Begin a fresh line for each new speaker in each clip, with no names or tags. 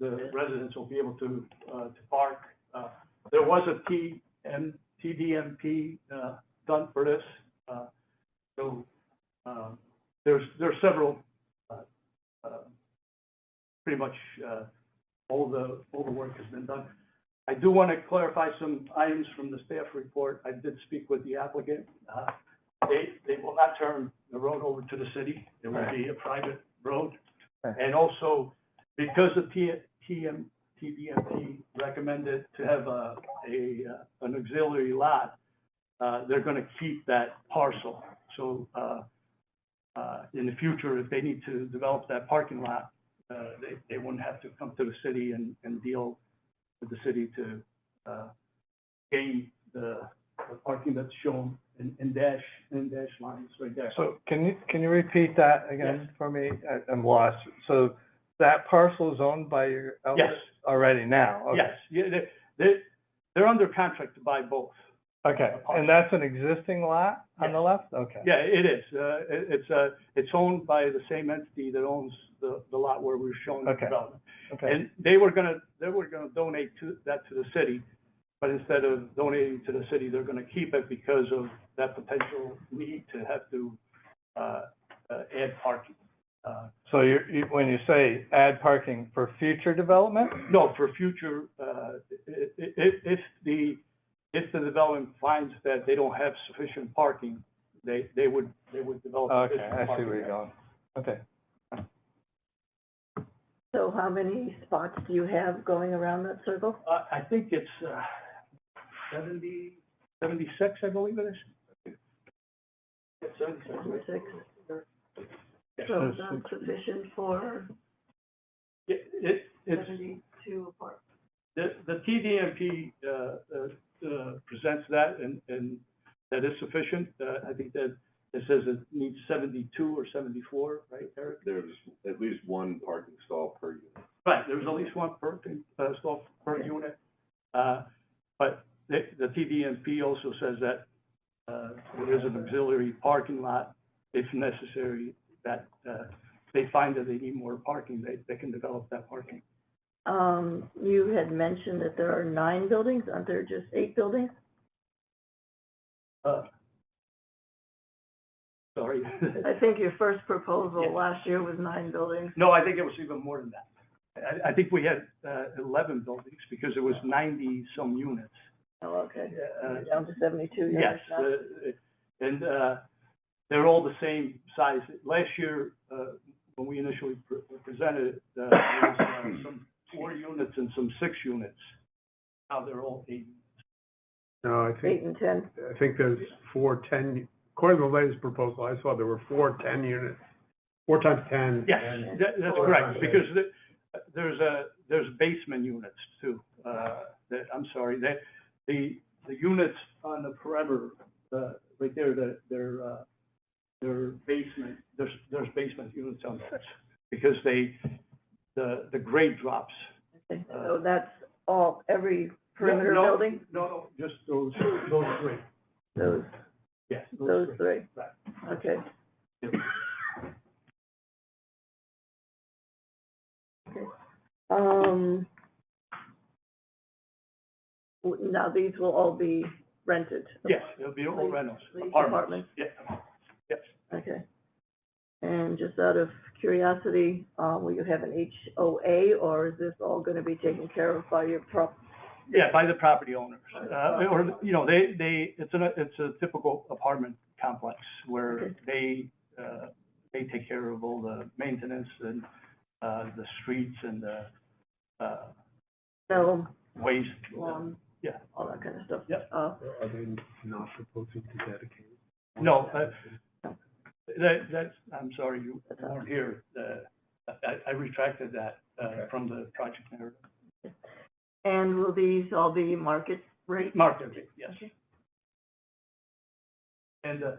the residents will be able to, uh, to park. Uh, There was a T and TDMP, uh, done for this, uh, so, um, there's, there's several, uh, uh, pretty much, uh, all the, all the work has been done. I do want to clarify some items from the staff report. I did speak with the applicant. Uh, They, they will not turn the road over to the city. It will be a private road.
Right.
And also, because the T, TM, TDMP recommended to have a, a, uh, an auxiliary lot, uh, they're going to keep that parcel. So, uh, uh, in the future, if they need to develop that parking lot, uh, they, they wouldn't have to come to the city and, and deal with the city to, uh, gain the, the parking that's shown in, in dash, in dash lines right there.
So can you, can you repeat that again for me? I- I'm lost. So that parcel is owned by your
Yes,
elders already now? Okay.
yes, yeah, they, they, they're under contract to buy both.
Okay, and that's an existing lot on the left? Okay.
Yeah, it is, uh, it, it's, uh, it's owned by the same entity that owns the, the lot where we're showing the
Okay.
development.
Okay,
And they were gonna, they were gonna donate to, that to the city, but instead of donating to the city, they're gonna keep it because of that potential need to have to, uh, uh, add parking. Uh,
so you, you, when you say add parking for future development?
No, for future, uh, i- i- i- if the, if the development finds that they don't have sufficient parking, they, they would, they would develop.
Okay,
additional
I see
parking
where you're
there.
going. Okay.
So how many spots do you have going around that circle?
Uh, I think it's, uh, seventy, seventy-six, I believe it is. It's Seventy-six. right?
Six.
Yes.
So that's sufficient for
It, it, it's,
seventy-two apartments.
the, the TDMP, uh, uh, uh, presents that and, and that is sufficient. Uh, I think that it says it needs seventy-two or seventy-four, right, Eric?
there's at least one parking stall per unit.
Right, there's at least one per, uh, stall per unit. Uh, but the, the TDMP also says that, uh, there is an auxiliary parking lot if necessary, that, uh, they find that they need more parking, they, they can develop that parking.
Um, you had mentioned that there are nine buildings, aren't there just eight buildings?
Uh, Sorry.
I think your first proposal
Yeah.
last year was nine buildings.
No, I think it was even more than that. I, I think we had, uh, eleven buildings because it was ninety-some units.
Oh, okay.
Uh,
You're Down to seventy-two, you're
Yes,
not-
uh, and, uh, they're all the same size. Last year, uh, when we initially pre- presented, it, uh, there was uh, some four units and some six units. Now they're all eight.
No, I
eight
think,
and ten.
I think there's four ten, according to the latest proposal, I saw there were four ten units, four times ten.
Yes,
and-
that, that's
Four
correct,
times
because the, there's a, there's basement units too, uh, that, I'm sorry, that, the, the units on the perimeter, uh, right there, the, their, uh, their basement, there's, there's basement units on those, because they, the, the grade drops.
Okay, So that's all, every perimeter
No, no,
building,
No, no, just those, those three,
those,
yes, those three.
those three?
Right.
Okay.
Yep.
Okay. Um, w- now these will all be rented?
Yes, it'll be all rentals,
These
apartments,
apartments,
yeah, yes.
okay. And just out of curiosity, uh, will you have an HOA or is this all gonna be taken care of by your prop?
Yeah, by the property owners, uh, or, you know, they, they, it's a, it's a typical apartment complex where
Okay.
they, uh, they take care of all the maintenance and, uh, the streets and the, uh,
No,
waste.
lawn?
Yeah.
um, All that kind of stuff?
Yep.
Uh,
Are they not proposing to dedicate?
No, uh, that, that's, I'm sorry, you weren't here, uh, I, I retracted that, uh, from the project narrative.
And will these all be market rate?
Market rate, yes. And, uh,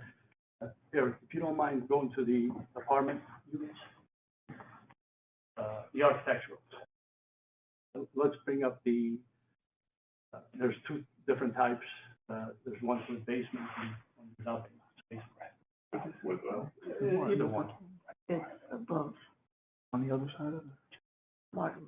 uh, Eric, if you don't mind going to the apartment units, uh, the architectural. Let's bring up the, uh, there's two different types. Uh, there's one with basement and one without basement.
With, uh,
Either one.
It's above
On the other side of it?
market